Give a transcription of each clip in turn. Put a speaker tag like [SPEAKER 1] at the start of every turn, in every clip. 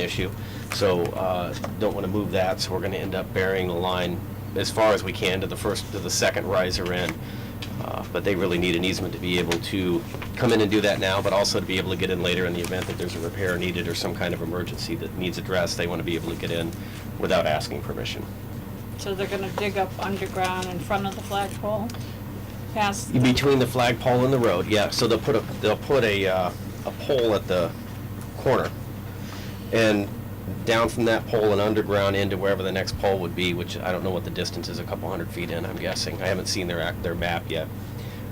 [SPEAKER 1] issue. So uh, don't want to move that, so we're going to end up burying the line as far as we can to the first, to the second riser in. Uh, But they really need an easement to be able to come in and do that now, but also to be able to get in later in the event that there's a repair needed or some kind of emergency that needs addressed. They want to be able to get in without asking permission.
[SPEAKER 2] So they're gonna dig up underground in front of the flagpole? Past,
[SPEAKER 1] Between the flagpole and the road, yeah, so they'll put a, they'll put a, uh, a pole at the corner. And down from that pole and underground into wherever the next pole would be, which I don't know what the distance is, a couple hundred feet in, I'm guessing. I haven't seen their act, their map yet.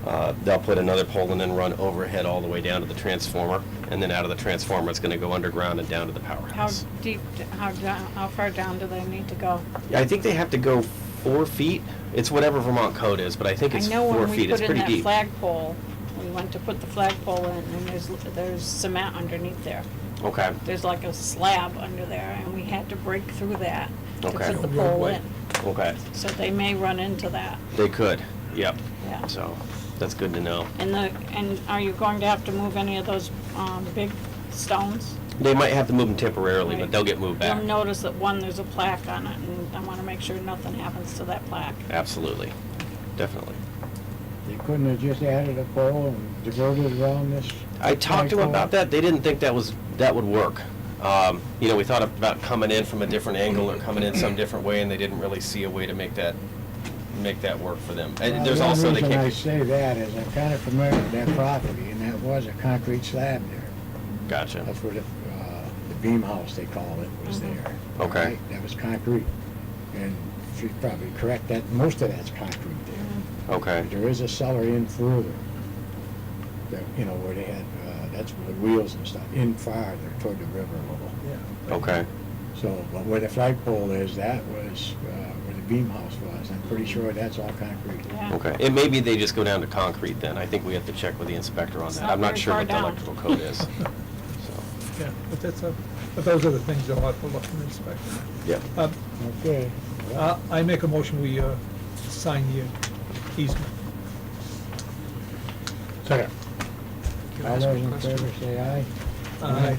[SPEAKER 1] Uh, they'll put another pole and then run overhead all the way down to the transformer, and then out of the transformer, it's gonna go underground and down to the
[SPEAKER 2] how
[SPEAKER 1] powerhouse.
[SPEAKER 2] deep, how down, how far down do they need to go?
[SPEAKER 1] I think they have to go four feet, it's whatever Vermont code is, but I think
[SPEAKER 2] I
[SPEAKER 1] it's
[SPEAKER 2] know
[SPEAKER 1] four
[SPEAKER 2] when we
[SPEAKER 1] feet, it's
[SPEAKER 2] put in
[SPEAKER 1] pretty
[SPEAKER 2] that
[SPEAKER 1] deep.
[SPEAKER 2] flagpole, we went to put the flagpole in, and there's, there's cement underneath there.
[SPEAKER 1] Okay,
[SPEAKER 2] There's like a slab under there, and we had to break through that to
[SPEAKER 1] Okay.
[SPEAKER 2] put the pole
[SPEAKER 3] Roadway.
[SPEAKER 2] in.
[SPEAKER 1] okay,
[SPEAKER 2] So they may run into that,
[SPEAKER 1] they could, yep.
[SPEAKER 2] yeah.
[SPEAKER 1] So, that's good to know.
[SPEAKER 2] And the, and are you going to have to move any of those, um, big stones?
[SPEAKER 1] They might have to move them temporarily, but
[SPEAKER 2] Right.
[SPEAKER 1] they'll get moved
[SPEAKER 2] You'll
[SPEAKER 1] back.
[SPEAKER 2] notice that one, there's a plaque on it, and I wanna make sure nothing happens to that plaque.
[SPEAKER 1] Absolutely, definitely.
[SPEAKER 3] You couldn't have just added a pole and diverted around this?
[SPEAKER 1] I talked to them about that, they didn't think that was, that would work. Um, You know, we thought about coming in from a different angle or coming in some different way, and they didn't really see a way to make that, make that work for them.
[SPEAKER 3] Well,
[SPEAKER 1] And Uh, there's also, they
[SPEAKER 3] The only
[SPEAKER 1] can't,
[SPEAKER 3] reason I say that is I'm kind of familiar with that property, and that was a concrete slab there.
[SPEAKER 1] gotcha,
[SPEAKER 3] That's where the, uh, the beam house, they call it, was
[SPEAKER 2] Mhm.
[SPEAKER 3] there.
[SPEAKER 1] Okay.
[SPEAKER 3] right? That was concrete. And she's probably correct, that, most of that's concrete there.
[SPEAKER 1] okay,
[SPEAKER 3] There is a cellar in further, that, you know, where they had, uh, that's where the wheels and stuff, in farther toward the river a little.
[SPEAKER 1] okay,
[SPEAKER 3] So, but where the flagpole is, that was uh, where the beam house was. I'm pretty sure that's all concrete.
[SPEAKER 2] Yeah.
[SPEAKER 1] okay. And maybe they just go down to concrete then, I think we have to check with the inspector on
[SPEAKER 2] It's
[SPEAKER 1] that.
[SPEAKER 2] not
[SPEAKER 1] I'm not
[SPEAKER 2] very
[SPEAKER 1] sure
[SPEAKER 2] far
[SPEAKER 1] what the
[SPEAKER 2] down.
[SPEAKER 1] electrical code is. So,
[SPEAKER 4] Yeah, but that's a, but those are the things you'll have to look and inspect.
[SPEAKER 1] Yeah,
[SPEAKER 4] Um,
[SPEAKER 3] Okay.
[SPEAKER 4] uh, I make a motion, we uh, sign the uh, easement.
[SPEAKER 3] Second.
[SPEAKER 5] Can I
[SPEAKER 3] All
[SPEAKER 5] ask
[SPEAKER 3] those
[SPEAKER 5] a
[SPEAKER 3] in
[SPEAKER 5] question?
[SPEAKER 3] favor say aye.
[SPEAKER 4] Uh,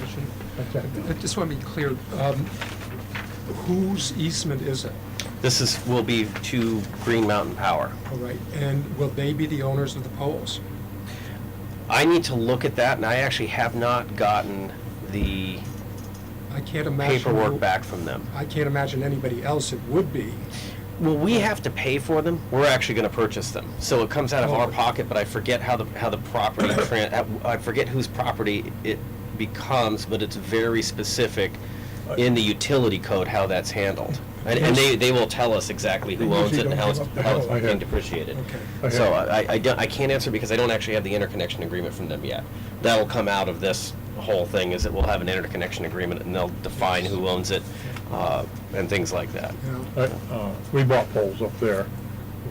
[SPEAKER 3] What's that?
[SPEAKER 5] I just want to be clear, um, whose easement is it?
[SPEAKER 1] This is, will be to Green Mountain Power.
[SPEAKER 5] All right, and will they be the owners of the poles?
[SPEAKER 1] I need to look at that, and I actually have not gotten the
[SPEAKER 5] I can't imagine.
[SPEAKER 1] paperwork
[SPEAKER 5] who-
[SPEAKER 1] back from them.
[SPEAKER 5] I can't imagine anybody else it would be.
[SPEAKER 1] Well, we have to pay for them. We're actually going to purchase them. So it comes out of our
[SPEAKER 5] Oh.
[SPEAKER 1] pocket, but I forget how the, how the property, tran- uh, I forget whose property it becomes, but it's very specific in the utility code how that's handled. And, and they, they will tell us exactly who
[SPEAKER 4] They
[SPEAKER 1] owns it
[SPEAKER 4] usually
[SPEAKER 1] and how it's,
[SPEAKER 4] don't give up the
[SPEAKER 1] how it's
[SPEAKER 4] bill, I
[SPEAKER 1] being
[SPEAKER 4] heard.
[SPEAKER 1] depreciated.
[SPEAKER 5] Okay.
[SPEAKER 1] So I, I don't, I can't answer because I don't actually have the interconnection agreement from them yet. That'll come out of this whole thing, is that we'll have an interconnection agreement and they'll define who owns it, uh, and things like that.
[SPEAKER 5] You know,
[SPEAKER 6] I- uh, We bought poles up there.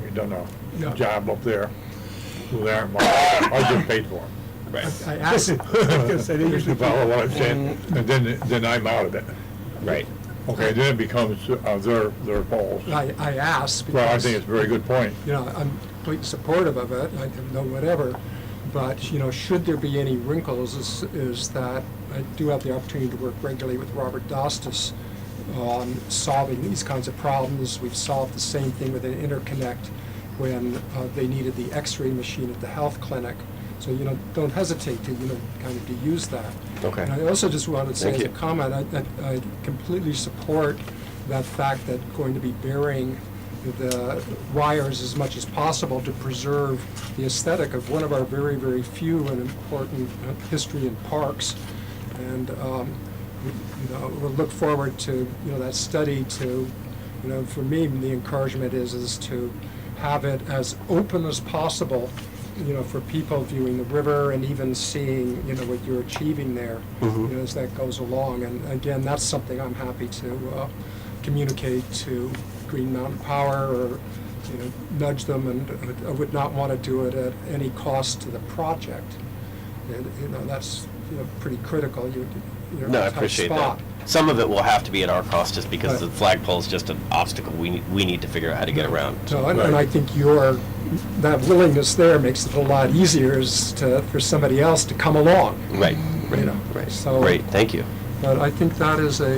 [SPEAKER 6] We done
[SPEAKER 5] Yeah.
[SPEAKER 6] a job up there. They aren't mine. I just paid for them.
[SPEAKER 1] Right.
[SPEAKER 5] I asked,
[SPEAKER 4] Yes, I did.
[SPEAKER 6] You follow what I'm saying? And then, then I'm out of it.
[SPEAKER 1] Right.
[SPEAKER 6] Okay, then it becomes uh, their, their poles.
[SPEAKER 5] I I asked.
[SPEAKER 6] Well, I
[SPEAKER 5] because,
[SPEAKER 6] think it's a very good point.
[SPEAKER 5] You know, I'm completely supportive of it, I have no whatever, but, you know, should there be any wrinkles, is, is that I do have the opportunity to work regularly with Robert Dostis on solving these kinds of problems. We've solved the same thing with an interconnect when uh, they needed the x-ray machine at the health clinic. So, you know, don't hesitate to, you know, kind of to use that.
[SPEAKER 1] Okay.
[SPEAKER 5] And I also just wanted to say
[SPEAKER 1] Thank
[SPEAKER 5] as a
[SPEAKER 1] you.
[SPEAKER 5] comment, I- I, I completely support that fact that going to be burying the wires as much as possible to preserve the aesthetic of one of our very, very few and important uh, history in parks. And, um, we- you know, we'll look forward to, you know, that study to, you know, for me, the encouragement is, is to have it as open as possible, you know, for people viewing the river and even seeing, you know, what you're achieving there,
[SPEAKER 1] Mm-hmm.
[SPEAKER 5] you know, as that goes along. And again, that's something I'm happy to uh, communicate to Green Mountain Power or, you know, nudge them, and I would not want to do it at any cost to the project. And, you know, that's, you know, pretty critical. You- You're in
[SPEAKER 1] No, I
[SPEAKER 5] a tough
[SPEAKER 1] appreciate that.
[SPEAKER 5] spot.
[SPEAKER 1] Some of it will have to be at our cost, just because
[SPEAKER 5] Right.
[SPEAKER 1] the flagpole is just an obstacle we, ne- we need to figure out how to get around.
[SPEAKER 5] So, and and I think your, that willingness there makes it a lot easier is to, for somebody else to come along,
[SPEAKER 1] Right,
[SPEAKER 5] you
[SPEAKER 1] right,
[SPEAKER 5] know.
[SPEAKER 1] right.
[SPEAKER 5] So-
[SPEAKER 1] Great, thank you.
[SPEAKER 5] But I think that is a